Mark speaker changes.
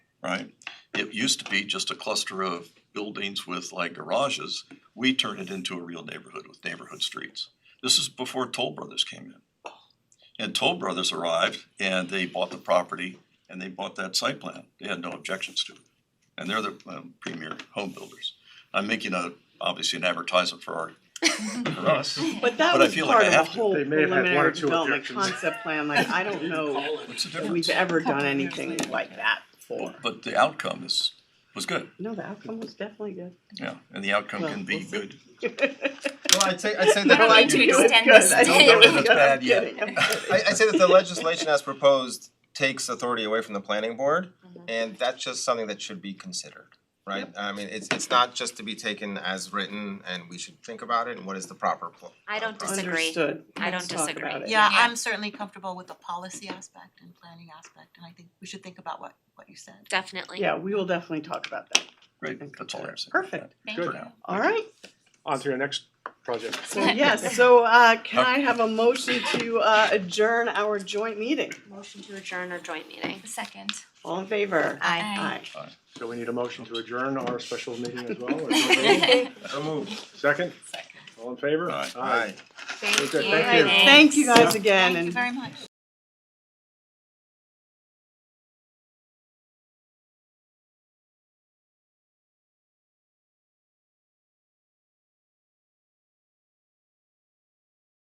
Speaker 1: right? It used to be just a cluster of buildings with like garages. We turned it into a real neighborhood with neighborhood streets. This is before Toll Brothers came in. And Toll Brothers arrived and they bought the property and they bought that site plan. They had no objections to it. And they're the um, premier home builders. I'm making a, obviously an advertisement for our, for us.
Speaker 2: But that
Speaker 1: But I
Speaker 2: was
Speaker 1: feel like
Speaker 2: part
Speaker 1: I
Speaker 2: of a
Speaker 1: have to.
Speaker 2: whole
Speaker 3: They may have had one or
Speaker 2: preliminary
Speaker 3: two
Speaker 2: development
Speaker 3: objections.
Speaker 2: concept plan, like, I don't know
Speaker 1: What's the
Speaker 2: that
Speaker 1: difference?
Speaker 2: we've ever done anything like that before.
Speaker 1: But the outcome is, was good,
Speaker 2: No, the outcome was definitely good.
Speaker 1: yeah, and the outcome
Speaker 2: Well,
Speaker 1: can be
Speaker 2: we'll see.
Speaker 1: good.
Speaker 4: Well, I'd say, I'd say
Speaker 5: I
Speaker 4: that,
Speaker 5: don't like to
Speaker 4: I,
Speaker 2: It was
Speaker 5: extend
Speaker 2: good.
Speaker 5: this
Speaker 2: I don't
Speaker 1: today.
Speaker 2: know if
Speaker 1: It's
Speaker 2: good.
Speaker 1: bad
Speaker 2: I'm
Speaker 1: yet.
Speaker 2: kidding. I'm kidding.
Speaker 4: I'd say that the legislation as proposed takes authority away from the planning board,
Speaker 5: Mhm.
Speaker 4: and that's just something that should be considered, right? I mean, it's, it's not just to be taken as written, and we should think about it, and what is the proper pl-
Speaker 5: I don't
Speaker 4: process.
Speaker 5: disagree.
Speaker 2: Understood.
Speaker 5: I don't
Speaker 2: Let's talk
Speaker 5: disagree.
Speaker 2: about it.
Speaker 6: Yeah,
Speaker 5: Yeah.
Speaker 6: I'm certainly comfortable with the policy aspect and planning aspect, and I think we should think about what, what you said.
Speaker 5: Definitely.
Speaker 2: Yeah, we will definitely talk about that.
Speaker 1: Great,
Speaker 2: and
Speaker 1: that's all
Speaker 2: consider
Speaker 1: I'm
Speaker 2: it.
Speaker 1: saying.
Speaker 2: Perfect.
Speaker 6: Thank
Speaker 1: For
Speaker 6: you.
Speaker 1: now.
Speaker 2: All right,
Speaker 3: On to your next project.
Speaker 2: so yes, so uh can I have a motion to uh adjourn our joint meeting?
Speaker 5: Motion to adjourn our joint meeting.
Speaker 6: Second.
Speaker 2: All in favor?
Speaker 6: Aye.
Speaker 2: Aye.
Speaker 3: So we need a motion to adjourn our special meeting as well. or something?
Speaker 4: So moved.
Speaker 3: Second? All in favor?
Speaker 1: Aye.
Speaker 4: Aye.
Speaker 5: Thank you.
Speaker 3: Okay, thank you.
Speaker 2: Thank you guys again
Speaker 6: Thank you
Speaker 2: and
Speaker 6: very much.